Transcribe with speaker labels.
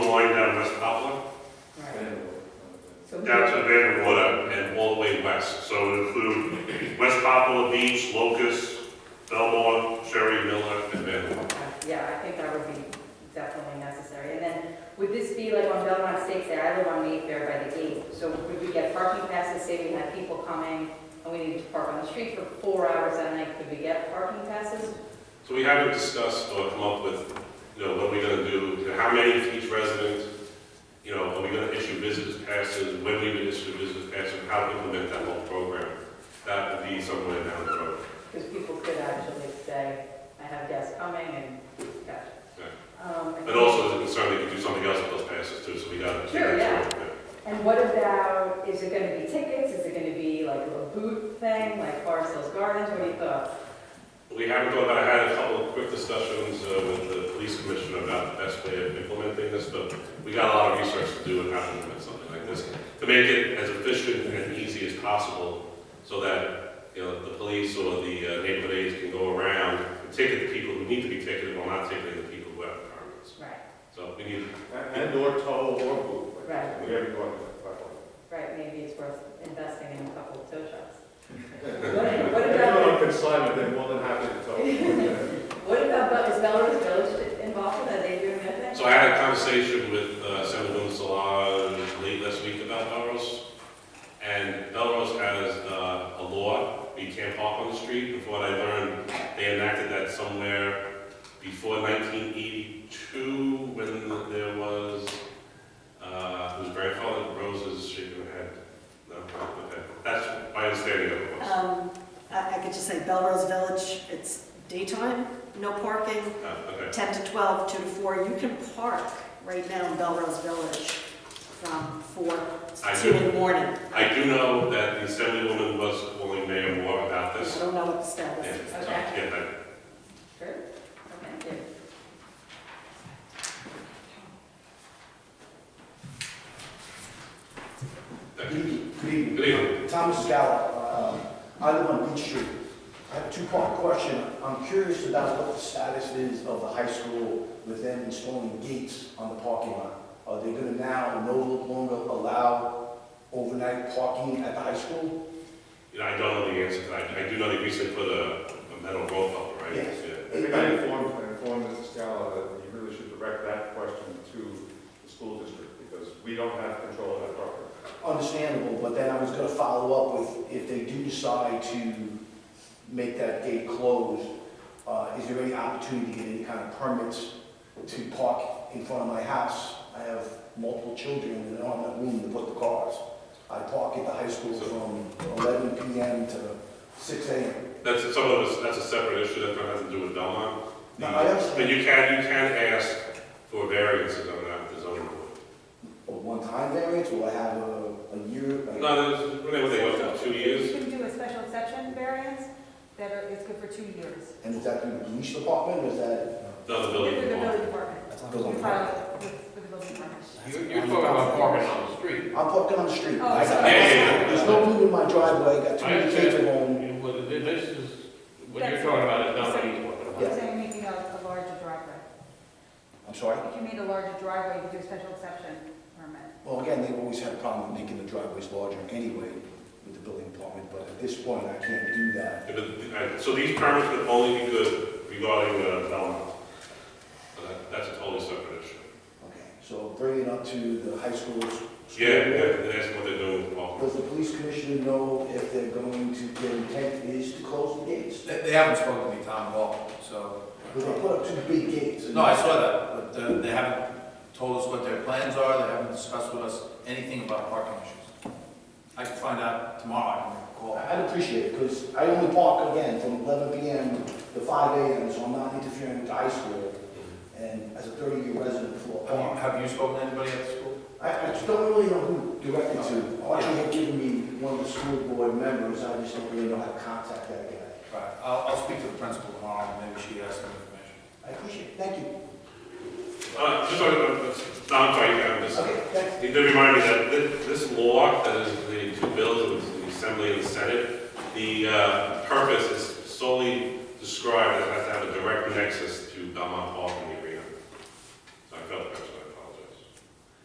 Speaker 1: yes, so it include West Poplar Beach, Locust, Belmore, Sherry, Miller, and Benwood.
Speaker 2: Okay, Yeah, I think that would be definitely necessary. And then, would this be like on Belmont Estates there, I live on Mayfair by the gate, so would we get parking passes, say we had people coming, and we needed to park on the street for four hours that night, could we get parking passes?
Speaker 1: So we haven't discussed or come up with, you know, what we're gonna do, you know, how many for each resident, you know, are we gonna issue visitors passes, when we would issue visitors passes, how to implement that whole program. That would be somewhere down the road.
Speaker 2: Because people could actually say, I have guests coming, and, gotcha. Um, I
Speaker 1: And
Speaker 2: think-
Speaker 1: also, there's a concern they could do something else with those passes too, so we gotta. keep
Speaker 2: Sure, yeah.
Speaker 1: that through.
Speaker 2: And what about, is it gonna be tickets, is it gonna be like a little booth thing, like Forest Hills Gardens, what do you oh, thought?
Speaker 1: We haven't gone, I had a couple of quick discussions uh, with the police commissioner about the best way of implementing this, but we got a lot of research to do on how to implement something like this, to make it as efficient and easy as possible, so that, you know, the police or the uh, neighborhood aides can go around and ticket the people who need to be ticketed, while not ticketing the people who have permits.
Speaker 2: Right,
Speaker 1: So we need,
Speaker 3: And or tow or boot.
Speaker 2: Right.
Speaker 3: We haven't gone that far.
Speaker 2: right, maybe it's worth investing in a couple of tow trucks. What what about?
Speaker 3: If you're on consignment, they're more than happy to tow.
Speaker 2: What about, Bel- is Melrose Village involved with that, they doing their thing?
Speaker 1: so I had a conversation with uh, Senator Lynn Salah late last week about Belrose, and Belrose has uh, a law, you can't park on the street, and from what I learned, they enacted that somewhere before 1982, when there was, uh, whose grandfather, Rose's shaking her head, no, okay, that's my understanding of it was.
Speaker 4: Um, I, I could just say Belrose Village, it's daytime, no parking,
Speaker 1: Uh, Okay,
Speaker 4: 10 to 12, 2 to 4. You can park right now in Belrose Village from 4
Speaker 1: I
Speaker 4: to 2 in the morning.
Speaker 1: I do know that the Assemblywoman was calling Mayor Moore about
Speaker 4: I
Speaker 1: this,
Speaker 4: don't know what the
Speaker 1: and,
Speaker 4: status is.
Speaker 1: so, yeah, that-
Speaker 2: Sure, okay, good.
Speaker 1: Thank
Speaker 5: Good
Speaker 1: you.
Speaker 5: evening. Good evening.
Speaker 1: Good evening.
Speaker 5: Thomas Gallup, um, I live on Beach Street. I have a two-part question. I'm curious about what the status is of the high school with them installing gates on the parking lot. Are they going to now no longer allow overnight parking at the high school?
Speaker 1: You know, I don't know the answer to that. I do know they recently put a, a metal rope up, right?
Speaker 5: Yes.
Speaker 1: Yeah.
Speaker 3: I think I informed, I informed Mrs. Scala that you really should direct that question to the school district because we don't have control of that property.
Speaker 5: Understandable, but then I was going to follow up with, if they do decide to make that gate closed, uh, is there any opportunity to get any kind of permits to park in front of my house? I have multiple children and I don't have room to put the cars. I park at the high school from 11 PM to 6 AM.
Speaker 1: That's, some of us, that's a separate issue that has to do with Belmont.
Speaker 5: No, I understand.
Speaker 1: Mm-hmm. But you can, you can ask for variances on that, with the zoning board.
Speaker 5: A one-time variance, or I have a a year? like-
Speaker 1: No, there's, whenever they go for two years,
Speaker 6: You can do a special exception variance that are, it's good for two years.
Speaker 5: And is that through the police department, or is that?
Speaker 1: another
Speaker 6: Through
Speaker 1: building.
Speaker 6: the
Speaker 1: board.
Speaker 6: building department.
Speaker 5: goes on
Speaker 6: You
Speaker 5: the-
Speaker 6: file with, with the building department.
Speaker 7: You- You're talking about parking on the street.
Speaker 5: I'm parking on the street.
Speaker 6: Oh,
Speaker 5: I got-
Speaker 1: Yeah, yeah,
Speaker 5: There's no room in my driveway, I got two
Speaker 7: I
Speaker 5: little kids at home.
Speaker 7: understand, Well, th- this is, what you're talking about is not what he's talking about.
Speaker 6: You're saying making a, a larger driveway.
Speaker 5: I'm sorry?
Speaker 6: If you made a larger driveway, you could do a special exception permit.
Speaker 5: Well, again, they've always had a problem with making the driveways larger anyway with the building department, but at this point, I can't do that.
Speaker 1: Yeah, but- all right, So these permits would only be good regarding uh, Belmont. But that- That's a totally separate issue.
Speaker 5: Okay, so bring it up to the high schools.
Speaker 1: Yeah, yeah, and that's what they're doing with Belmont.
Speaker 5: Does the police commissioner know if they're going to, their intent is to close the gates?
Speaker 8: They, they haven't spoken to me, Tom, at all, so.
Speaker 5: Because they put up two big gates. and-
Speaker 8: No, I saw that, but uh, they haven't told us what their plans are, they haven't discussed with us anything about parking issues. I can find out tomorrow, I can call.
Speaker 5: I- I'd appreciate it, because I only park again from 11 PM to 5 AM, so I'm not interfering with the high school. And as a 30-year resident for a
Speaker 8: Have
Speaker 5: park,
Speaker 8: you, have you spoken to anybody at the school?
Speaker 5: I, I just don't really know who directed to. Archie had given me one of the school board members, I just don't really know how to contact that guy.
Speaker 8: Right, I'll, I'll speak to the principal tomorrow, and maybe she has some information.
Speaker 5: I appreciate it, thank you.
Speaker 1: Uh, just, uh, no, I'm sorry, uh, you can, just.
Speaker 5: Okay, thanks.
Speaker 1: You need to remind me that thi- this law, that is the two bills, which is the Assembly and the Senate, the uh, purpose is solely described, as has to have a direct nexus to Belmont Park and